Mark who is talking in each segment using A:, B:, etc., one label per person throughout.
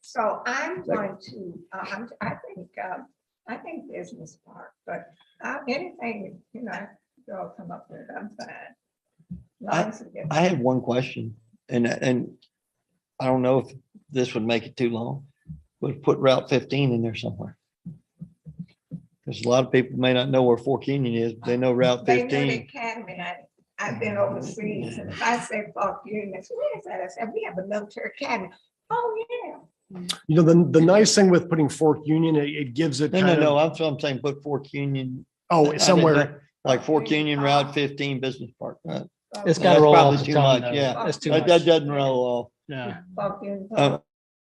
A: So I'm going to, uh, I'm, I think, um, I think business park, but, uh, anything, you know, they'll come up with, I'm fine. Long as it gets-
B: I have one question and, and I don't know if this would make it too long, but put Route fifteen in there somewhere. Because a lot of people may not know where Fork Canyon is, but they know Route
A: They know the
B: fifteen.
A: academy, I, I've been overseas, and if I say Park Union, they say, where is that? I said, we have a military academy. Oh, yeah.
C: You know, the, the nice thing with putting Fork Union, it, it gives it
B: No, no,
C: kind
B: no,
C: of,
B: I'm, I'm saying put Fork Union. I
C: oh,
B: mean,
C: somewhere.
B: Like Fork Union Route fifteen Business Park. Uh,
A: Park
D: It's
B: Yeah,
D: gotta
B: that's
D: roll
B: probably
D: off the
B: too
D: tongue,
B: much,
D: though.
B: yeah.
D: That's too
B: That, that
D: much.
B: doesn't roll
D: Yeah.
A: Park Union.
B: off. Uh,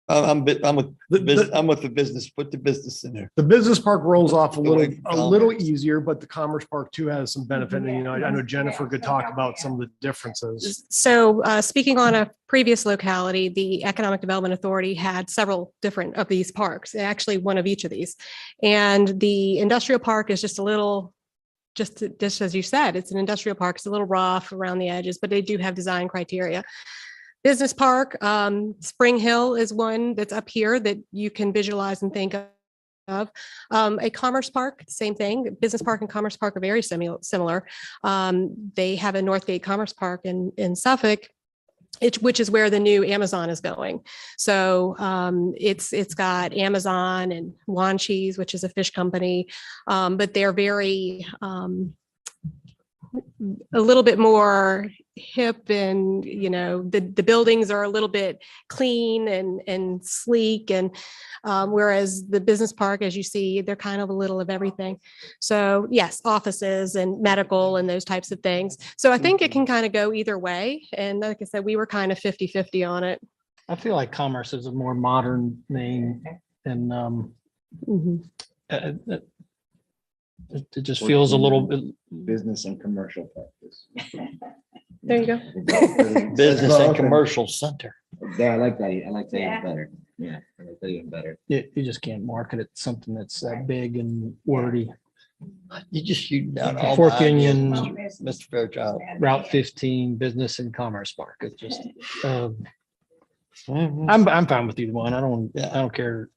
B: I- I'm, bit- I'm with,
C: The-
B: bus-
C: the-
B: I'm with the business, put the business in there.
C: The business park rolls off a
B: The
C: little,
B: way
C: a
B: Tom
C: little
B: is.
C: easier, but the commerce park too has some benefit. And, you know, I I know Jennifer could talk about some of the differences.
E: So uh, speaking on a previous locality, the Economic Development Authority had several different of these parks, actually one of each of these. And the industrial park is just a little, just, just as you said, it's an industrial park. It's a little rough around the edges, but they do have design criteria. Business Park, um, Spring Hill is one that's up here that you can visualize and think of. Um, A Commerce Park, same thing. Business Park and Commerce Park are very similar, similar. Um, they have a Northgate Commerce Park in, in Suffolk. It, which is where the new Amazon is going. So um, it's it's got Amazon and Wan Cheese, which is a fish company, um, but they're very um, a little bit more hip and you know the the buildings are a little bit clean and and sleek and um, whereas the business park, as you see, they're kind of a little of everything. So yes, offices and
D: Mm-hmm.
E: medical and those types of things. So I think it can kind of go either way. And like I said, we were kind of 50-50 on it.
D: I feel like commerce is a more modern name and um, uh, uh, it it just feels a little, bit
A: Mm.
F: business and commercial practice.
E: There you go.
B: Business and commercial center.
F: Yeah, I like that. I like that
A: Yeah.
F: even better. Yeah, I like that even better.
D: you you just can't market it something that's that big and wordy.
B: Uh, You just shooting down all.
D: Fork
B: my ideas,
D: Union,
B: Mr. Mr. Fairchild.
D: Route fifteen, business and commerce park. It's just, um,
B: Mhm.
D: I'm, I'm fine with either one. I don't,
B: Yeah.
D: I don't care.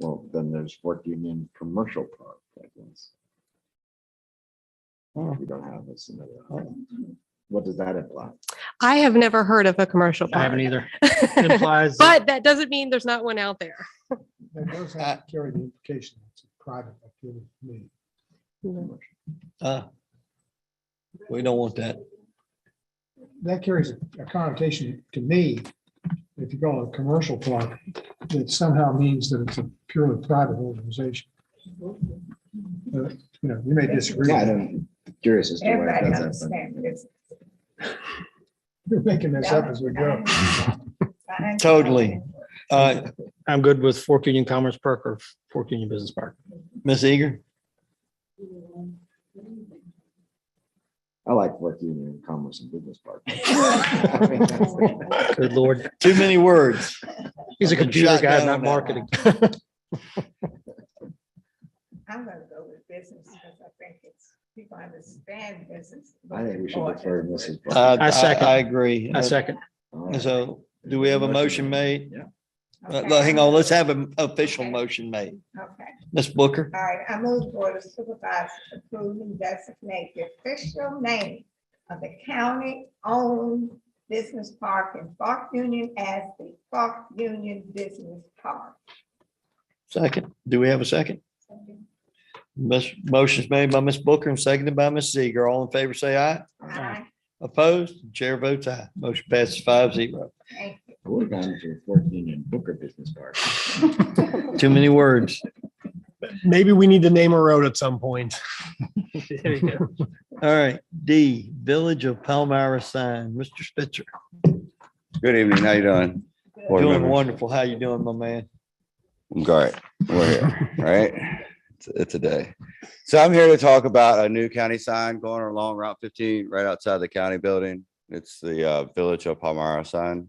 F: Well, then there's Fort Union Commercial Park. I guess.
B: Oh.
F: We don't have this. in the- What does that imply?
E: I have never heard of a commercial
D: I haven't
E: park.
D: either. It Implies. that-
E: But that doesn't mean there's not one out there.
G: That does have to carry the implication, it's a private activity, me.
B: Uh, We don't want that.
G: That carries a connotation to me, if you call it a commercial park, that somehow means that it's a purely private organization. But, You know, you may disagree,
F: Yeah, I'm curious as to why
A: Everybody
F: it does that.
A: understands this.
G: we're making this up as we go.
B: Totally. Uh,
D: I'm good with Fork Union Commerce Park or Fork Union Business Park.
B: Ms. Eager,
F: but I like Fort Union Commerce and Business Park.
D: Good lord.
B: too many words.
D: He's a
B: I've been
D: computer
B: shot
D: guy,
B: down
D: not
B: on that one.
D: marketing.
A: I'm gonna go with business because I think it's, people understand business.
F: I think we should
A: Or-
F: defer to Mrs.
B: Uh,
F: Park.
D: I second.
B: I agree. Uh,
D: I second.
F: All right.
B: So do we have a motion made?
F: Yeah.
B: Uh,
A: Okay.
B: well, Hang on, let's have an official
A: Okay.
B: motion made.
A: Okay,
B: Ms. Booker,
A: all right, I move Board of Supervisors approve and designate the official name of the county-owned business park in Park Union as the Park Union Business Park.
B: second. Do we have a second? Ms. Motion's made by Ms. Booker and seconded by Ms. Eager. All in favor, say aye.
A: Aye.
B: Opposed? Chair votes aye. Motion passes five zero.
A: Thank you.
F: We're down to Fort Union Booker Business Park.
B: Too many words.
C: Maybe we need to name a road at some point.
D: There you go.
B: All right, D, Village of Palmyra sign. Mr. Spitzer,
H: Good evening, how you doing? Board
B: doing
H: members.
B: wonderful. How you doing, my man?
H: I'm great. We're here, right? It's, it's a day. So I'm here to talk about a new county sign going along Route fifteen, right outside the county building. It's the uh, Village of Palmyra sign.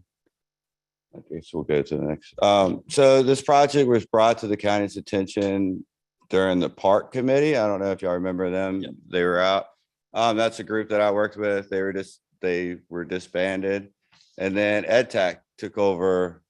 H: I guess we'll go to the next. Um, so this project was brought to the county's attention during the park committee. I don't know if y'all remember them. They were out. Um, that's a group that I worked with. They were just, they were disbanded. And then Ed Tech took over